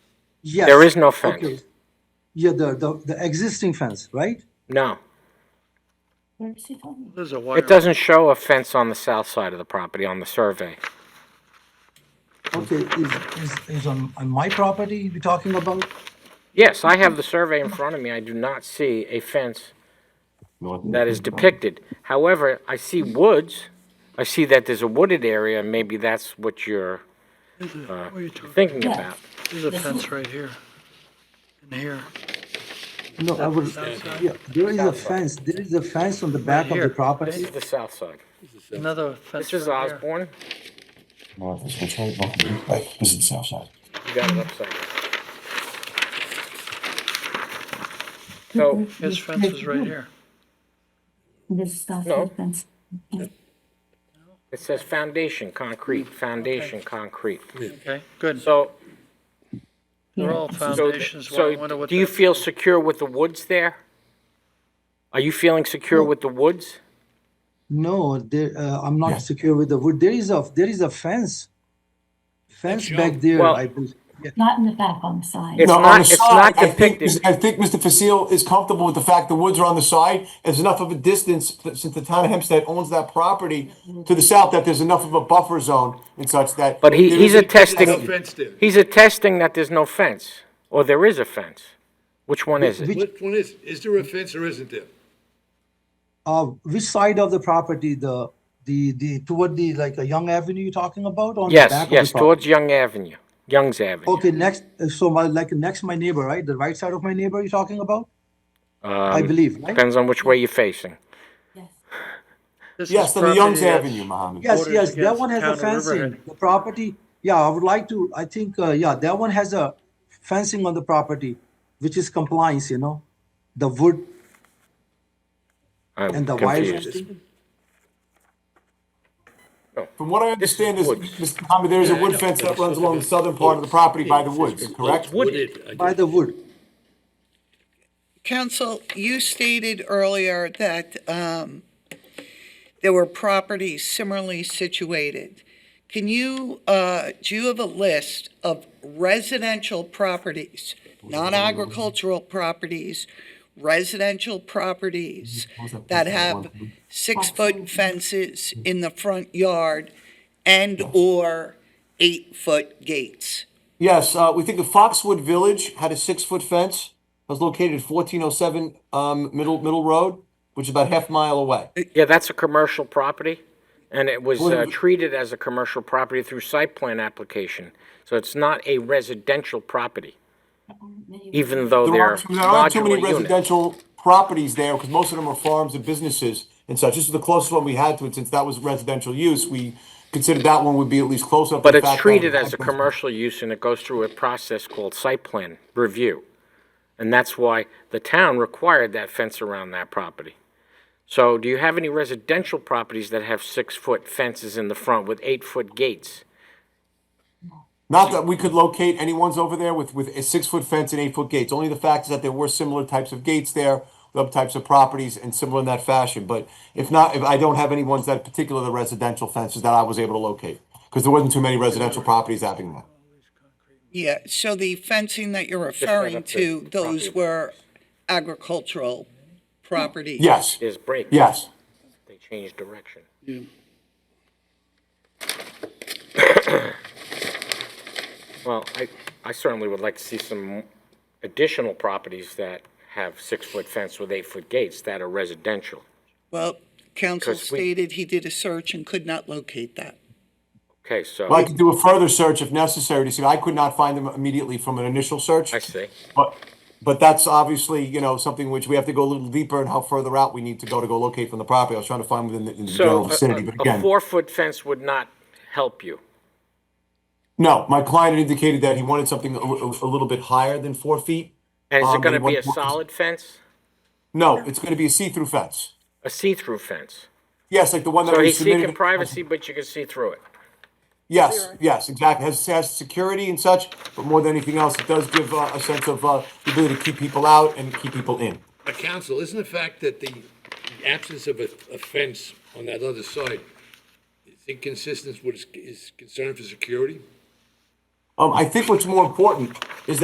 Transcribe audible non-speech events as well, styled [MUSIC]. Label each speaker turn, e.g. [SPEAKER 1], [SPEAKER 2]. [SPEAKER 1] Yes.
[SPEAKER 2] There is no fence.
[SPEAKER 1] Okay. Yeah, the, the, the existing fence, right?
[SPEAKER 2] No,
[SPEAKER 3] Where is he talking?
[SPEAKER 4] There's a wire.
[SPEAKER 2] it doesn't show a fence on the south side of the property on the survey.
[SPEAKER 1] Okay, is, is, is on, on my property we're talking about?
[SPEAKER 2] Yes, I have the survey in front of me. I do not see a fence that is depicted. However, I see woods. I see that there's a wooded area, and maybe that's what you're
[SPEAKER 4] There's a- What are you talking?
[SPEAKER 2] thinking
[SPEAKER 3] Yeah.
[SPEAKER 2] about.
[SPEAKER 4] Uh, There's a fence right here. And here.
[SPEAKER 1] No, I was, yeah, there is a fence, there is a fence on the back of
[SPEAKER 4] here.
[SPEAKER 1] the property.
[SPEAKER 2] The south side.
[SPEAKER 4] Another fence.
[SPEAKER 2] This is
[SPEAKER 4] right here.
[SPEAKER 2] Osborne.
[SPEAKER 5] No, this one's right, not the loop back. This is the south side.
[SPEAKER 2] You got it upside down. So,
[SPEAKER 4] His fence is right here.
[SPEAKER 3] This is not
[SPEAKER 2] No.
[SPEAKER 3] fence.
[SPEAKER 2] it says foundation, concrete, foundation, concrete.
[SPEAKER 4] Okay, good.
[SPEAKER 2] So,
[SPEAKER 4] They're all
[SPEAKER 2] so,
[SPEAKER 4] foundations. Why- I wonder
[SPEAKER 2] so
[SPEAKER 4] what
[SPEAKER 2] do you
[SPEAKER 4] that-
[SPEAKER 2] feel secure with the woods there? Are you feeling secure with the woods?
[SPEAKER 1] No, there, uh, I'm
[SPEAKER 5] Yeah.
[SPEAKER 1] not secure with the wood. There is a, there is a fence. Fence back there,
[SPEAKER 2] Well-
[SPEAKER 1] I believe. Yeah,
[SPEAKER 3] Not in the back, on the side.
[SPEAKER 2] It's
[SPEAKER 5] No, on
[SPEAKER 2] not-
[SPEAKER 5] the
[SPEAKER 2] it's
[SPEAKER 5] side,
[SPEAKER 2] not
[SPEAKER 5] I think-
[SPEAKER 2] depicted.
[SPEAKER 5] I think Mr. Facile is comfortable with the fact the woods are on the side. There's enough of a distance, that- since the town of Hempstead owns that property to the south, that there's enough of a buffer zone and such that.
[SPEAKER 2] But he,
[SPEAKER 5] there
[SPEAKER 2] he's
[SPEAKER 5] is-
[SPEAKER 2] attesting,
[SPEAKER 6] fence there.
[SPEAKER 2] he's attesting that there's no fence, or there is a fence. Which one is it?
[SPEAKER 6] Which one is, is there a fence or isn't there?
[SPEAKER 1] uh, which side of the property, the, the, the, toward the, like, a Young Avenue you're talking about? on the back
[SPEAKER 2] Yes,
[SPEAKER 1] of the
[SPEAKER 2] yes,
[SPEAKER 1] property?
[SPEAKER 2] towards Young Avenue, Young's Avenue.
[SPEAKER 1] Okay, next, uh, so my, like, next my neighbor, right? The right side of my neighbor you're talking about?
[SPEAKER 4] Uh,
[SPEAKER 1] I believe, right?
[SPEAKER 2] Depends on which way you're facing.
[SPEAKER 3] Yes.
[SPEAKER 4] This is
[SPEAKER 5] Yes, on the Youngs
[SPEAKER 4] property uh, that's-
[SPEAKER 5] Avenue, Mohammed.
[SPEAKER 1] Yes,
[SPEAKER 4] borders
[SPEAKER 1] yes, that
[SPEAKER 4] against
[SPEAKER 1] one has a
[SPEAKER 4] the town of
[SPEAKER 1] fencing.
[SPEAKER 4] Riverhead.
[SPEAKER 1] The property, yeah, I would like to, I think, uh, yeah, that one has a fencing on the property, which is compliance, you know? The wood
[SPEAKER 2] I'm
[SPEAKER 1] and the wire
[SPEAKER 2] confused.
[SPEAKER 1] fencing.
[SPEAKER 5] From what I understand is,
[SPEAKER 2] woods.
[SPEAKER 5] Mr. Mohammed, there is a wood fence that runs along the southern part of the property by the woods, correct?
[SPEAKER 1] By the wood,
[SPEAKER 7] Counsel, you stated earlier that um, there were properties similarly situated. Can you, uh, do you have a list of residential properties, non-agricultural properties, residential properties that have six-foot fences in the front yard and/or eight-foot gates?
[SPEAKER 5] Yes, uh, we think the Foxwood Village had a six-foot fence. It was located at 1407 um, Middle Middle Road, which is about half a mile away.
[SPEAKER 2] Yeah, that's a commercial property, and it was uh,
[SPEAKER 5] Well-
[SPEAKER 2] treated as a commercial property through site plan application. So it's not a residential property, even though
[SPEAKER 5] There
[SPEAKER 2] they're
[SPEAKER 5] aren't, there aren't too
[SPEAKER 2] modular
[SPEAKER 5] many
[SPEAKER 2] units.
[SPEAKER 5] residential properties there because most of them are farms and businesses and such. This is the closest one we had to it since that was residential use. We considered that one would be at least close up. to
[SPEAKER 2] But
[SPEAKER 5] the
[SPEAKER 2] it's
[SPEAKER 5] fact that-
[SPEAKER 2] treated as a commercial use, and it goes through a process called site plan review. And that's why the town required that fence around that property. So do you have any residential properties that have six-foot fences in the front with eight-foot gates?
[SPEAKER 5] Not that we could locate any ones over there with, with a six-foot fence and eight-foot gates. Only the fact is that there were similar types of gates there, other types of properties and similar in that fashion. But if not, if I don't have any ones that particular the residential fences that I was able to locate because there wasn't too many residential properties having that.
[SPEAKER 7] Yeah, so the fencing that you're referring
[SPEAKER 2] up the
[SPEAKER 7] to,
[SPEAKER 2] property
[SPEAKER 7] those were agricultural properties?
[SPEAKER 5] Yes,
[SPEAKER 2] There's break.
[SPEAKER 5] yes.
[SPEAKER 2] They changed direction. [COUGHS] Well, I, I certainly would like to see some additional properties that have six-foot fence with eight-foot gates that are residential.
[SPEAKER 7] Well, counsel
[SPEAKER 2] 'Cause we-
[SPEAKER 7] stated he did a search and could not locate that.
[SPEAKER 2] Okay, so,
[SPEAKER 5] Well, I could do a further search if necessary to see. I could not find them immediately from an initial search.
[SPEAKER 2] I see.
[SPEAKER 5] But, but that's obviously, you know, something which we have to go a little deeper and how further out we need to go to go locate from the property. I was trying to find within the, in the general
[SPEAKER 2] So uh, a-
[SPEAKER 5] vicinity, but
[SPEAKER 2] a, a
[SPEAKER 5] again,
[SPEAKER 2] four-foot fence would not help you.
[SPEAKER 5] no, my client had indicated that he wanted something a, a- a little bit higher than four feet.
[SPEAKER 2] And is
[SPEAKER 5] Um,
[SPEAKER 2] it
[SPEAKER 5] but
[SPEAKER 2] gonna
[SPEAKER 5] he
[SPEAKER 2] be a
[SPEAKER 5] wants more-
[SPEAKER 2] solid fence?
[SPEAKER 5] No, it's going to be a see-through fence.
[SPEAKER 2] A see-through fence?
[SPEAKER 5] Yes, like the one that
[SPEAKER 2] So
[SPEAKER 5] we
[SPEAKER 2] he's seeking
[SPEAKER 5] submitted.
[SPEAKER 2] privacy, but you can see through it.
[SPEAKER 5] Yes, yes, exactly. Has, has security and such, but more than anything else, it does give uh, a sense of uh, the ability to keep people out and keep people in.
[SPEAKER 6] But counsel, isn't the fact that the the absence of a, a fence on that other side is inconsistent with his, his concern for security?
[SPEAKER 5] Um, I think what's more important is that.